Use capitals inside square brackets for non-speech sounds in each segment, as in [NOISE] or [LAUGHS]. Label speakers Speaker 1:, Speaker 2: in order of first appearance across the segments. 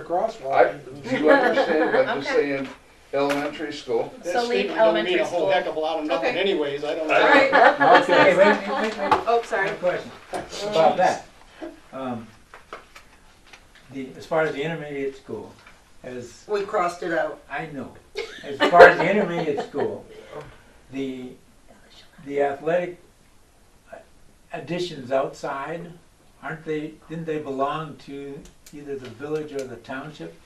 Speaker 1: I,
Speaker 2: crosswalk.
Speaker 1: do [LAUGHS]
Speaker 3: [LAUGHS]
Speaker 1: you understand what I'm just saying? Elementary school,
Speaker 2: That
Speaker 4: So leave
Speaker 2: statement don't
Speaker 4: elementary
Speaker 2: mean a whole
Speaker 4: school.
Speaker 2: heck of a lot of nothing
Speaker 3: Okay.
Speaker 2: anyways, I don't
Speaker 3: All
Speaker 2: know. [LAUGHS]
Speaker 3: right,
Speaker 5: Okay, wait, wait, wait, wait,
Speaker 3: [LAUGHS] oh, sorry.
Speaker 5: one question about that. Um, The, as far as the intermediate school, as
Speaker 3: We crossed it out.
Speaker 5: I know, as far as the intermediate school, the, the athletic additions outside, aren't they, didn't they belong to either the village or the township?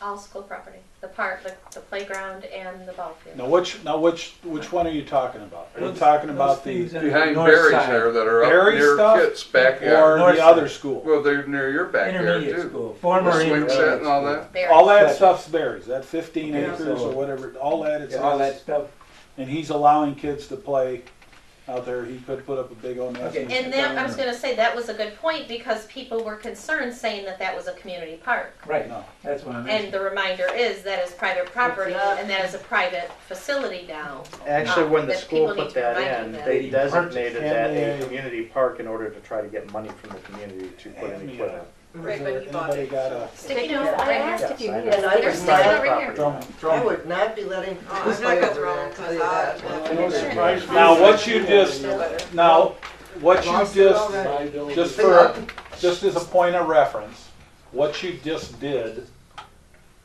Speaker 4: All school property, the park, the, the playground and the ball field.
Speaker 6: Now which, now which, which one are you talking about? Are you
Speaker 5: Those-
Speaker 6: talking
Speaker 5: those
Speaker 6: about
Speaker 5: things
Speaker 6: the,
Speaker 5: on the
Speaker 1: behind
Speaker 5: north
Speaker 1: berries
Speaker 5: side,
Speaker 1: there that are up
Speaker 6: Berry
Speaker 1: near
Speaker 6: stuff
Speaker 1: Kit's backyard.
Speaker 6: or
Speaker 5: North
Speaker 6: the other
Speaker 5: side.
Speaker 6: school?
Speaker 1: Well, they're near your backyard
Speaker 5: Intermediate
Speaker 1: too.
Speaker 5: school, former
Speaker 1: The swing
Speaker 5: intermediate
Speaker 1: set and all
Speaker 5: school.
Speaker 1: that.
Speaker 4: There.
Speaker 6: All that
Speaker 5: Gotcha.
Speaker 6: stuff's berries, that fifteen
Speaker 5: Okay,
Speaker 6: acres
Speaker 5: so-
Speaker 6: or whatever, all that is,
Speaker 5: All that stuff
Speaker 6: and he's allowing kids to play out there, he could put up a big old mess.
Speaker 5: Okay.
Speaker 4: And that, I was gonna say, that was a good point because people were concerned saying that that was a community park.
Speaker 5: Right,
Speaker 6: No.
Speaker 5: that's what I'm
Speaker 4: And
Speaker 5: asking.
Speaker 4: the reminder is that is private property and that is a private facility now.
Speaker 7: Actually, when the
Speaker 4: That
Speaker 7: school
Speaker 4: people need
Speaker 7: put
Speaker 4: to
Speaker 7: that
Speaker 4: remind
Speaker 7: in,
Speaker 4: you
Speaker 7: they
Speaker 5: that.
Speaker 7: designated that
Speaker 6: Yeah, yeah, yeah.
Speaker 7: a community park in order to try to get money from the community to put in
Speaker 6: Yeah.
Speaker 7: equipment.
Speaker 3: Right, but you bought
Speaker 6: Anybody
Speaker 3: it,
Speaker 6: got a
Speaker 4: Sticky
Speaker 3: Sticky
Speaker 4: note
Speaker 3: note.
Speaker 4: right here.
Speaker 7: Yes, I know.
Speaker 8: And I
Speaker 4: There's
Speaker 8: would
Speaker 4: still
Speaker 8: not,
Speaker 4: over here.
Speaker 5: Drum-
Speaker 8: I
Speaker 5: drum-
Speaker 8: would not be letting
Speaker 3: I'm
Speaker 8: kids
Speaker 3: not
Speaker 8: play
Speaker 3: gonna
Speaker 8: over
Speaker 3: throw
Speaker 8: there,
Speaker 3: them
Speaker 8: I'll
Speaker 3: 'cause
Speaker 8: tell you
Speaker 3: I-
Speaker 8: that.
Speaker 2: It surprised me
Speaker 6: Now,
Speaker 2: that
Speaker 6: what you just- Now, what you
Speaker 8: Lost it
Speaker 6: just,
Speaker 8: already.
Speaker 6: just for, just as a point of reference, what you just did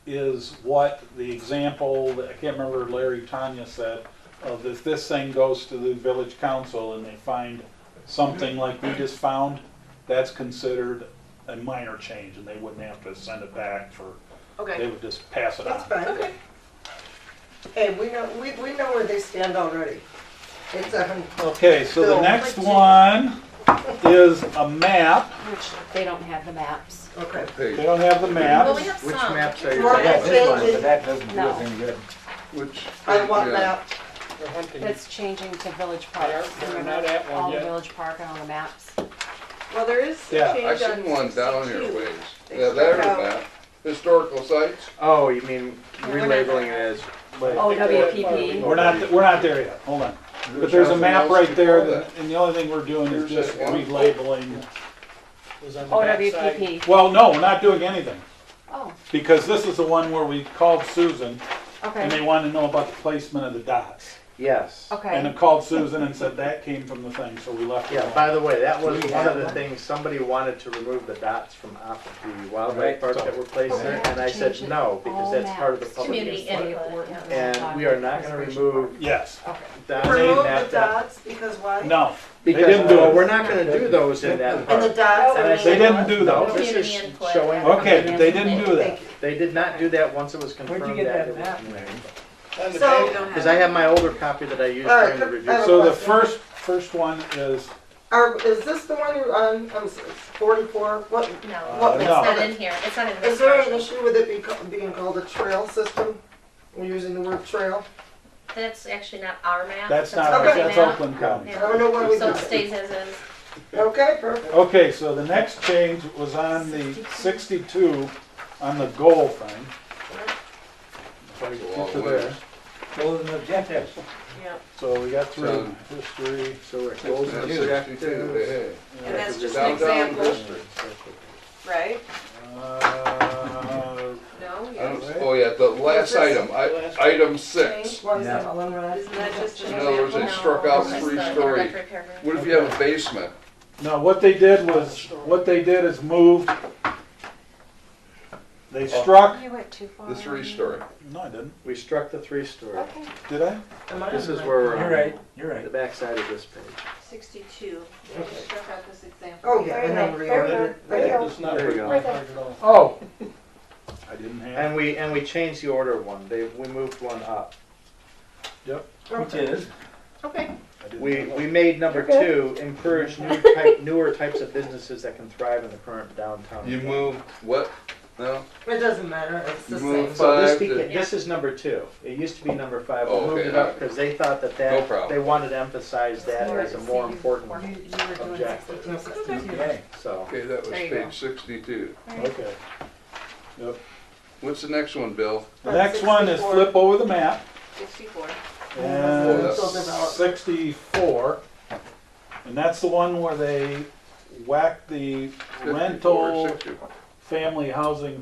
Speaker 6: is what the example, that- I can't remember Larry Tanya said, of if this thing goes to the village council and they find something like we just found, that's considered a minor change and they wouldn't have to send it back for, they
Speaker 3: Okay.
Speaker 6: would just pass it
Speaker 8: That's
Speaker 6: on.
Speaker 8: fine. Hey, we know, we, we know where they stand already. It's a, hun-
Speaker 6: Okay, so the
Speaker 8: Bill.
Speaker 6: next one is a map.
Speaker 9: They don't have the maps.
Speaker 8: okay.
Speaker 6: They
Speaker 1: Page,
Speaker 6: don't have the map.
Speaker 4: Well, we have some.
Speaker 7: Which maps are you?
Speaker 8: Well,
Speaker 5: I got
Speaker 8: that's-
Speaker 7: talking
Speaker 5: this one, but that doesn't do us any good.
Speaker 1: which.
Speaker 8: I want
Speaker 1: yeah.
Speaker 8: that.
Speaker 2: They're hunting.
Speaker 9: That's changing to village
Speaker 2: Yeah,
Speaker 9: park.
Speaker 2: Mm. they're
Speaker 9: Remember,
Speaker 2: not at one
Speaker 9: all the
Speaker 2: yet.
Speaker 9: village park and all the maps.
Speaker 3: Well, there is
Speaker 6: Yeah,
Speaker 3: a
Speaker 1: I
Speaker 3: change
Speaker 1: seen one
Speaker 3: on
Speaker 1: down here
Speaker 3: sixty-two.
Speaker 1: ways.
Speaker 3: They
Speaker 1: Yeah, there
Speaker 3: struck out-
Speaker 1: about. Historical sites.
Speaker 7: about? Oh, you mean
Speaker 4: we're not-
Speaker 7: relabeling it as,
Speaker 9: Oh,
Speaker 2: WPP.
Speaker 9: WPP.
Speaker 6: We're not, we're not there yet, hold on. But there's a map right there, that- and the only thing we're doing is just relabeling.
Speaker 2: Was on the
Speaker 9: Oh,
Speaker 2: backside.
Speaker 9: OWPP.
Speaker 6: Well, no, we're not doing anything,
Speaker 9: Oh,
Speaker 6: because this is the one where we called Susan, and
Speaker 9: okay,
Speaker 6: they wanted to know about the placement of the dots.
Speaker 7: yes.
Speaker 6: And
Speaker 9: okay.
Speaker 6: I called Susan and said that came from the thing, so we left it
Speaker 7: Yeah,
Speaker 6: alone.
Speaker 7: by the way, that was
Speaker 5: Do we
Speaker 7: one
Speaker 5: have
Speaker 7: of the
Speaker 5: one?
Speaker 7: things, somebody wanted to remove the dots from off of the
Speaker 5: Right.
Speaker 7: wildlife park that were placed
Speaker 9: But Oh, we
Speaker 7: there,
Speaker 9: have
Speaker 7: and
Speaker 9: to
Speaker 7: I said
Speaker 9: change it
Speaker 7: no, because
Speaker 9: all
Speaker 7: that's part of the
Speaker 9: maps.
Speaker 7: public
Speaker 4: Community
Speaker 7: input.
Speaker 4: input, yeah.
Speaker 7: And we are not gonna remove
Speaker 6: Yes,
Speaker 9: Okay.
Speaker 7: that name
Speaker 8: Remove the
Speaker 7: that- that.
Speaker 8: dots, because why?
Speaker 6: uh, no, They
Speaker 7: Because,
Speaker 6: didn't do
Speaker 7: well,
Speaker 6: it.
Speaker 7: we're not gonna do those in that
Speaker 8: And the
Speaker 7: park.
Speaker 8: dots,
Speaker 7: And I
Speaker 8: I
Speaker 6: they
Speaker 8: mean,
Speaker 6: didn't do
Speaker 7: No,
Speaker 6: that.
Speaker 7: this
Speaker 4: Community
Speaker 7: is
Speaker 4: input.
Speaker 7: showing
Speaker 6: Okay, they didn't do that.
Speaker 8: thank you.
Speaker 7: They did not do that once it was confirmed
Speaker 5: get
Speaker 7: that
Speaker 5: that
Speaker 7: it was
Speaker 5: map?
Speaker 7: community.
Speaker 2: On the
Speaker 3: So
Speaker 2: back-
Speaker 3: you don't
Speaker 7: Because
Speaker 3: have.
Speaker 7: I
Speaker 3: it.
Speaker 7: have my older copy that I used
Speaker 8: All right,
Speaker 7: during the
Speaker 8: I
Speaker 7: review.
Speaker 8: have a
Speaker 6: So the
Speaker 8: question.
Speaker 6: first, first one is,
Speaker 8: Are, is this the one you're on, um, forty-four? What,
Speaker 4: No,
Speaker 6: Uh,
Speaker 4: it's
Speaker 6: no.
Speaker 4: not in here. It's not in
Speaker 8: is
Speaker 4: this
Speaker 8: there an
Speaker 4: version.
Speaker 8: issue with it be, ca- being called a trail system? We're using the word trail.
Speaker 4: That's actually not our map.
Speaker 6: that's not,
Speaker 4: our
Speaker 8: ours,
Speaker 4: map.
Speaker 6: that's Oakland County.
Speaker 8: I don't know why we
Speaker 4: So
Speaker 8: do
Speaker 4: it
Speaker 8: it.
Speaker 4: stays as is.
Speaker 8: Okay, perfect.
Speaker 6: Okay, so the next change was on the sixty-two, on the goal thing. If I
Speaker 1: Go
Speaker 6: could
Speaker 1: all
Speaker 6: get
Speaker 1: the
Speaker 6: to
Speaker 1: way.
Speaker 6: there.
Speaker 5: Goals and objectives.
Speaker 6: So we got through
Speaker 1: So-
Speaker 6: history.
Speaker 7: So it goes
Speaker 1: That's
Speaker 7: into
Speaker 1: Sixty-two,
Speaker 7: objectives.
Speaker 1: hey.
Speaker 3: And that's just an
Speaker 1: Downtown
Speaker 3: example,
Speaker 8: uh,
Speaker 1: district.
Speaker 3: right?
Speaker 6: Uh,
Speaker 3: No,
Speaker 1: I
Speaker 3: yeah.
Speaker 1: don't- Oh, yeah, the last item, I, item six.
Speaker 3: Change.
Speaker 8: What is
Speaker 5: Yeah.
Speaker 8: that, all in red?
Speaker 3: Isn't that just an
Speaker 1: In other words,
Speaker 3: example?
Speaker 1: they
Speaker 4: No,
Speaker 1: struck out
Speaker 4: it's
Speaker 1: three
Speaker 4: the
Speaker 1: story.
Speaker 4: introductory paragraph.
Speaker 1: What if you have a basement?
Speaker 6: No, what they did was, what they did is move, they
Speaker 7: Oh.
Speaker 6: struck,
Speaker 9: Oh, You went too far.
Speaker 1: The three story.
Speaker 6: no, I didn't,
Speaker 7: We struck the three story.
Speaker 9: Okay.
Speaker 6: did I?
Speaker 8: Am I
Speaker 7: This
Speaker 8: on
Speaker 7: is
Speaker 8: the-
Speaker 7: where we're
Speaker 5: You're
Speaker 7: on,
Speaker 5: right, you're right.
Speaker 7: the backside of this page.
Speaker 3: Sixty-two, Yeah, you struck out this example.
Speaker 8: Oh, yeah, and then reordered it.
Speaker 6: Right, It's not
Speaker 7: There you
Speaker 6: very
Speaker 7: go.
Speaker 6: good at all.
Speaker 5: Oh.
Speaker 6: I didn't have,
Speaker 7: And we, and we changed the order one, they, we moved one up.
Speaker 5: Which is,
Speaker 9: Oh,
Speaker 3: Okay.
Speaker 6: I didn't
Speaker 7: We,
Speaker 6: have-
Speaker 7: we made number two, encourage new type, newer types of businesses that can thrive in the current downtown.
Speaker 1: You move what? No?
Speaker 8: It doesn't matter, it's the
Speaker 1: Move
Speaker 8: same.
Speaker 7: So this
Speaker 1: five
Speaker 7: beca-
Speaker 1: to,
Speaker 7: this is number two, it used to be number five, we
Speaker 1: Oh,
Speaker 7: moved
Speaker 1: okay,
Speaker 7: it
Speaker 1: all
Speaker 7: up
Speaker 1: right.
Speaker 7: because they thought that
Speaker 1: No
Speaker 7: that,
Speaker 1: problem.
Speaker 7: they wanted to emphasize that as a more important
Speaker 9: You,
Speaker 7: one,
Speaker 9: you were doing
Speaker 7: Objective.
Speaker 9: 62, 62.
Speaker 5: okay.
Speaker 7: so.
Speaker 1: okay, that was
Speaker 9: There you go.
Speaker 1: page sixty-two.
Speaker 6: Okay.
Speaker 1: What's the next one, Bill?
Speaker 6: The next one is flip over the map,
Speaker 3: Sixty-four.
Speaker 6: and
Speaker 1: Yes.
Speaker 6: sixty-four, and that's the one where they whacked the
Speaker 1: 54,
Speaker 6: rental
Speaker 1: 60.
Speaker 6: family housing